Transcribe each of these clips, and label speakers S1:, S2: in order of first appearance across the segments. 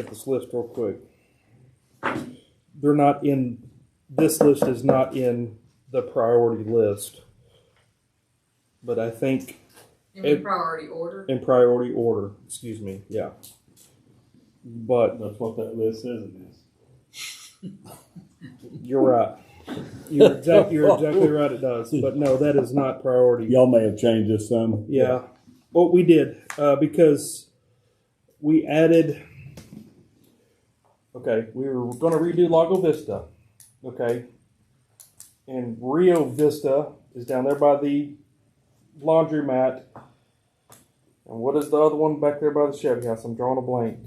S1: at this list real quick. They're not in, this list is not in the priority list. But I think
S2: In the
S1: It-
S2: priority order,
S1: in priority order, excuse me, yeah. But
S3: That's what that list says it is.
S1: you're right. You're exactly, you're exactly right, it does. But no, that is not priority.
S3: Y'all may have changed this some.
S1: Yeah. Well, we did uh, because we added. Okay, we were going to redo Lago Vista. Okay. And Rio Vista is down there by the laundromat. And what is the other one back there by the Chevy house? I'm drawing a blank.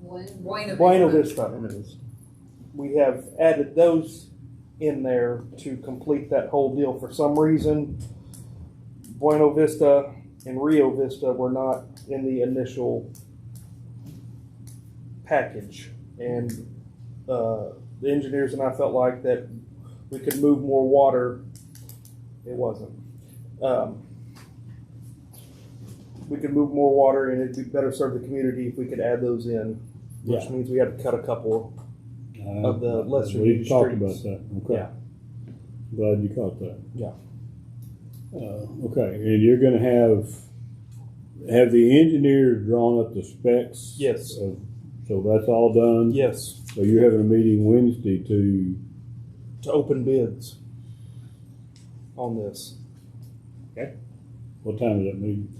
S2: Buena
S1: Buena
S2: Vista.
S1: Vista. it is. We have added those in there to complete that whole deal. For some reason, Buena Vista and Rio Vista were not in the initial package. And uh, the engineers and I felt like that we could move more water. It wasn't. Um, we could move more water and it'd be better serve the community if we could add those in which
S3: Yeah.
S1: means we had to cut a couple.
S3: Uh,
S1: Of the lesser
S3: We
S1: used
S3: talked about
S1: streets.
S3: that. Okay.
S1: Yeah.
S3: Glad you caught that.
S1: Yeah.
S3: Uh, okay, and you're gonna have, have the engineers drawn up the specs?
S1: Yes.
S3: of- So that's all done?
S1: Yes,
S3: So you're having a meeting Wednesday to,
S1: to open bids on this.
S3: what time is that meeting?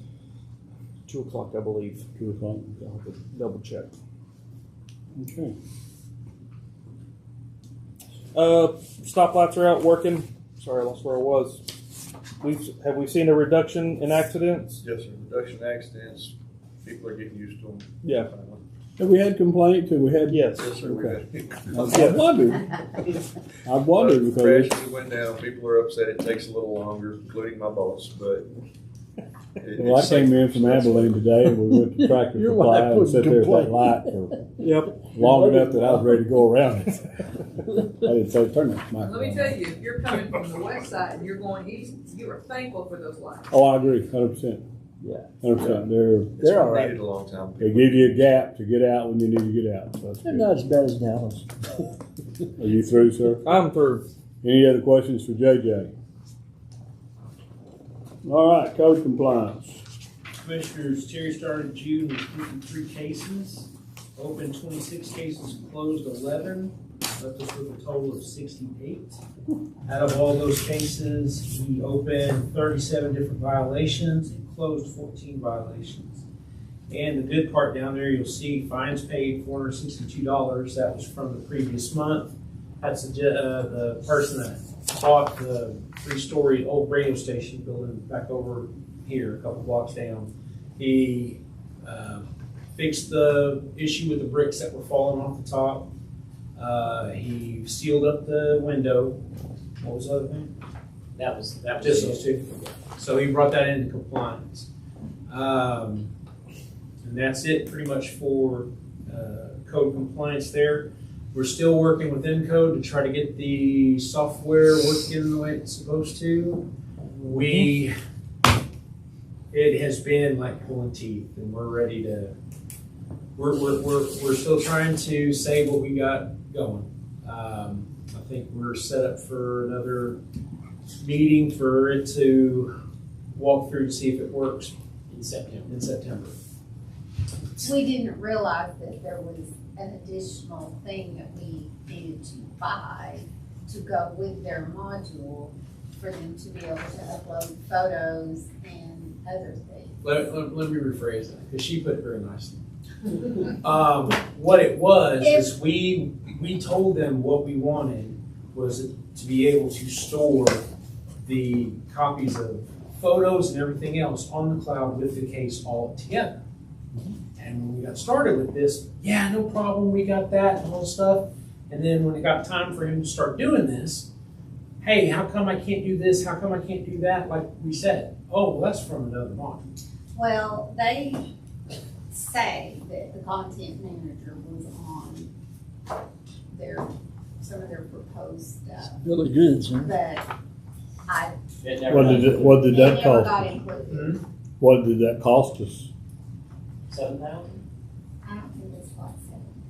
S1: Two o'clock, I believe.
S3: Two o'clock?
S1: I'll have to double check.
S3: Okay.
S1: Uh, stoplights are out working. Sorry, I lost where I was. We've have we seen a reduction in accidents?
S4: Yes, sir, reduction in accidents, people are getting used to them.
S1: Yeah.
S3: Have we had complaints? Have we had?
S1: Yes.
S4: Yes, sir, we've had.
S3: I wondered. I wondered because
S4: Crashes Uh, went down, people are upset, it takes a little longer, including my boss, but. it-
S3: Well, I
S4: it's-
S3: came in from Abilene today and we went to Tractor
S5: Your wife
S3: Supply and
S5: wouldn't
S3: sat there at that
S5: complain.
S3: light for
S1: Yep.
S3: long enough that I was ready to go around it. I didn't say turn that mic
S2: Let me
S3: on.
S2: tell you, if you're coming from the west side and you're going east, you are thankful for those lights.
S3: Oh, I agree, hundred percent.
S5: Yeah.
S3: Hundred percent. They're,
S4: It's
S5: They're all
S4: been
S5: right.
S4: needed a long time.
S3: they give you a gap to get out when you need to get out. So that's
S5: They're
S3: good.
S5: not as bad as Dallas.
S3: Are you through, sir?
S1: I'm through.
S3: Any other questions for JJ? All right, code compliance.
S6: Commissioners, Terry started June with fifty-three cases, opened twenty-six cases, closed eleven, left us with a total of sixty-eight. Out of all those cases, he opened thirty-seven different violations and closed fourteen violations. And the good part down there, you'll see fines paid four hundred sixty-two dollars, that was from the previous month. That's the, ju- uh, the person that bought the three-story old radio station building back over here, a couple blocks down. He uh, fixed the issue with the bricks that were falling off the top. Uh, He sealed up the window. What was the other thing? That was, that was. Just those two. So he brought that into compliance. Um, And that's it pretty much for uh, code compliance there. We're still working with Encode to try to get the software working the way it's supposed to. We it has been like pulling teeth and we're ready to we're, we're, we're, we're still trying to save what we got going um, i think we're set up for another meeting for it to walk through to see if it works in september in september
S7: We didn't realize that there was an additional thing that we needed to buy to go with their module for them to be able to upload photos and other things.
S6: let, let, let me rephrase that because she put it very nicely um, what it was is we we told them what we wanted was to be able to store the copies of photos and everything else on the cloud with the case all together. And when we got started with this, yeah, no problem, we got that and all this stuff. And then when it got time for him to start doing this, hey, how come I can't do this? How come I can't do that? Like we said, oh, well, that's from another module.
S7: Well, they say that the content manager was on their, some of their proposed stuff,
S5: Billy Goods,
S3: Mm-hmm.
S5: huh?
S7: but I,
S6: It never
S3: What did, it- what
S7: it
S3: did that
S7: never got
S3: cost?
S7: included.
S3: What did that cost us?
S6: Hmm? Seven thousand?